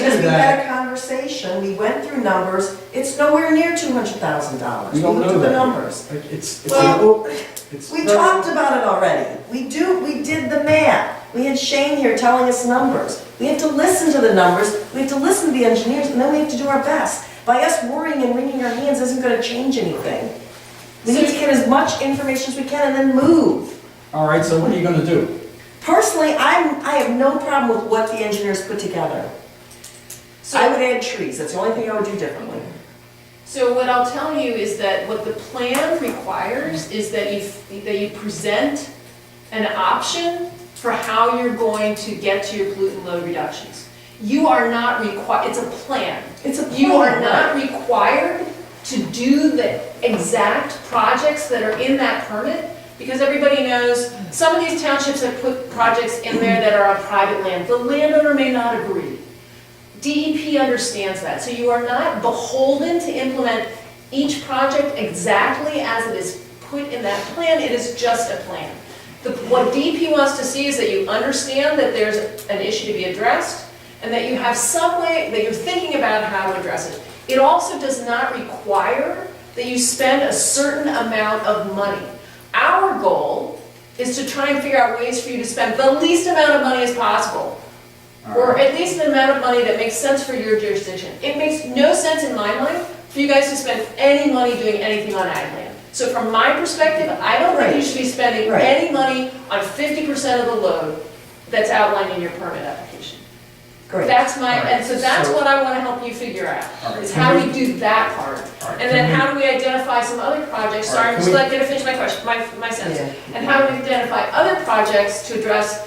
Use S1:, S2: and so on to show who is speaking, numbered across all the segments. S1: had
S2: that.
S1: a conversation, we went through numbers, it's nowhere near two hundred thousand dollars.
S2: We don't
S1: looked
S2: know
S1: at the
S2: that.
S1: numbers.
S2: Like, It's, it's.
S1: Well,
S2: it's
S1: we
S2: very-
S1: talked about it already. We do, we did the math. We had Shane here telling us numbers. We have to listen to the numbers, we have to listen to the engineers, and then we have to do our best. By us worrying and wringing our hands isn't gonna change anything. We need to get as much information as we can and then move.
S2: All right, so what are you gonna do?
S1: Personally, I'm, I have no problem with what the engineers put together. I would
S3: So,
S1: add trees, that's the only thing I would do differently.
S3: so what I'll tell you is that what the plan requires is that you, that you present an option for how you're going to get to your pollutant load reductions. You are not required, it's a plan.
S1: It's a
S3: You are
S1: plan,
S3: not
S1: right.
S3: required to do the exact projects that are in that permit, because everybody knows, some of these townships have put projects in there that are on private land. The landowner may not agree. DEP E understands that, so you are not beholden to implement each project exactly as it is put in that plan, it is just a plan. The- What DEP wants to see is that you understand that there's an issue to be addressed, and that you have some way, that you're thinking about how to address it. It also does not require that you spend a certain amount of money. Our goal is to try and figure out ways for you to spend the least amount of money as possible or at least an amount of money that makes sense for your jurisdiction. It makes no sense in my mind for you guys to spend any money doing anything on ag land. So from my perspective, I don't think you
S1: Right.
S3: should be spending
S1: Right.
S3: any money on fifty percent of the load that's outlined in your permit application.
S1: Great.
S3: That's my, and so that's
S2: Alright, so-
S3: what I wanna help you figure out,
S2: Alright,
S3: is
S2: can
S3: how
S2: we-
S3: we do that part.
S2: Alright,
S3: And then
S2: can
S3: how do we identify some other projects, sorry,
S2: Alright,
S3: I'm
S2: can
S3: just
S2: we-
S3: like, gonna finish my question, my, my sentence.
S1: Yeah.
S3: And how do we identify other projects to address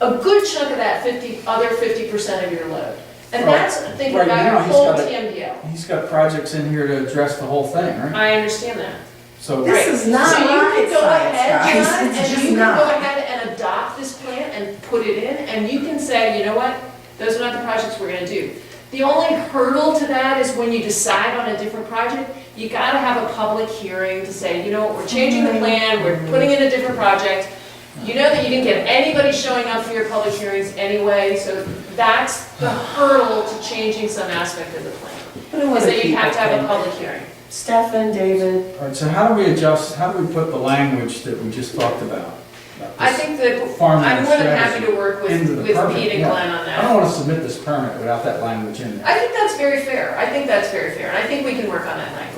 S3: a good chunk of that fifty, other fifty percent of your load? And
S2: Right.
S3: that's thinking
S2: Right,
S3: about
S2: now
S3: your
S2: he's
S3: whole
S2: got it.
S3: TMDL.
S2: He's got projects in here to address the whole thing, right?
S3: I understand that.
S2: So.
S1: This is not
S3: So you
S1: rocket
S3: can go ahead,
S1: science,
S3: John,
S1: guys. It's
S3: and you
S1: just
S3: can go
S1: not.
S3: ahead and adopt this plan and put it in, and you can say, you know what? Those are not the projects we're gonna do. The only hurdle to that is when you decide on a different project, you gotta have a public hearing to say, you know what, we're changing the plan, we're putting in a different project. You know that you didn't get anybody showing up for your public hearings anyway, so that's the hurdle to changing some aspect of the plan.
S1: But it
S3: Is
S1: wasn't
S3: that you have to have a
S1: people.
S3: public hearing.
S1: Stefan, David,
S2: All right, so how do we adjust, how do we put the language that we just talked about? about
S3: I
S2: this
S3: think that
S2: farmland
S3: I'm more than
S2: strategy
S3: happy to work with,
S2: into the
S3: with
S2: permit?
S3: Pete and
S2: No,
S3: Glenn on
S2: I don't
S3: that.
S2: want to submit this permit without that language in there.
S3: I think that's very fair, I think that's very fair, and I think we can work on that language.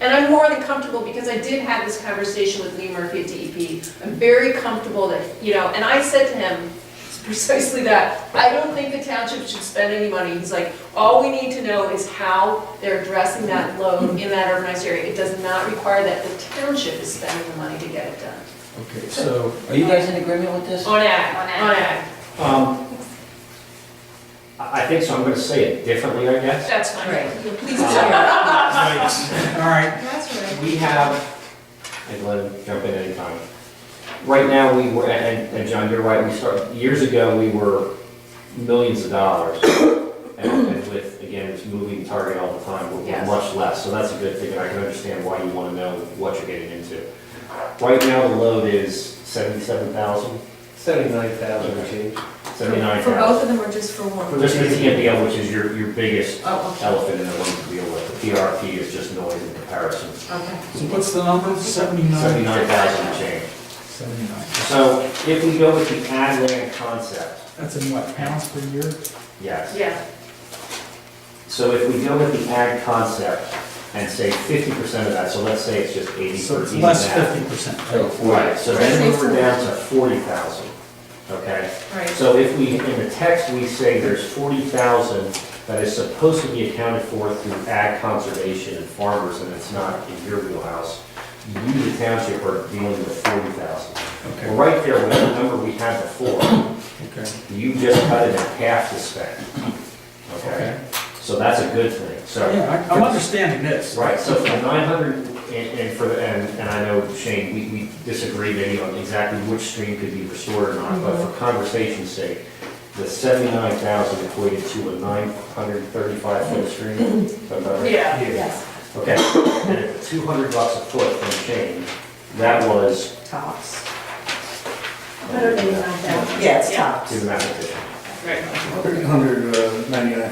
S3: And I'm more than comfortable, because I did have this conversation with Lee Murphy at DEP, I'm very comfortable that, you know, and I said to him precisely that, I don't think the township should spend any money, he's like, all we need to know is how they're addressing that load in that urbanized area. It does not require that the township is spending the money to get it done.
S2: Okay, so,
S4: Are you guys in agreement with this?
S3: On ag,
S5: On ag.
S3: on ag,
S6: Um, I I think so, I'm gonna say it differently, I guess.
S3: that's fine.
S1: Right.
S3: Please
S6: Um,
S3: do.
S2: all right,
S6: We have, and let him jump in anytime. Right now, we were, and, and John, you're right, we started, years ago, we were millions of dollars. And and with, again, it's moving target all the time, but we're
S3: Yes.
S6: much less, so that's a good thing, and I can understand why you wanna know what you're getting into. Right now, the load is seventy-seven thousand,
S7: Seventy-nine thousand and change.
S6: seventy-nine
S5: For both
S6: thousand.
S5: of them or just for one?
S6: Just the TMDL, which is your, your biggest
S5: Oh, okay.
S6: elephant in the room to deal with. The PRP is just noise in comparison.
S5: Okay.
S2: so what's the number? Seventy-nine?
S6: Seventy-nine thousand change.
S2: Seventy-nine.
S6: So if we go with the ad land concept,
S2: That's in what, pounds per year?
S6: yes.
S3: Yeah,
S6: So if we go with the ad concept and say fifty percent of that, so let's say it's just eighty
S2: So
S6: for
S2: it's
S6: each
S2: less
S6: ad.
S2: fifty percent.
S4: Oh,
S6: Right, so then we're down to forty thousand, okay?
S5: Right.
S6: So if we, in the text, we say there's forty thousand that is supposed to be accounted for through ag conservation and farmers, and it's not in your wheelhouse, you, the township, are dealing with forty thousand.
S2: Okay,
S6: Well, right there, with the number we had before,
S2: okay,
S6: you just cut it in half to spend.
S2: okay.
S6: Okay? So that's a good thing, so.
S2: Yeah, I- I'm understanding this.
S6: Right, so for nine hundred, and, and for, the- and, and I know Shane, we, we disagree maybe on exactly which stream could be restored or not, but for conversation's sake, the seventy-nine thousand equated to a nine hundred thirty-five foot stream, is that about right?
S3: Yeah.
S1: yes,
S6: Okay, and at two hundred bucks a foot from Shane, that was,
S1: tops.
S6: do
S1: Yes,
S3: Yeah.
S1: tops.
S6: the mathematician.
S3: right.
S7: Three hundred, uh, ninety-nine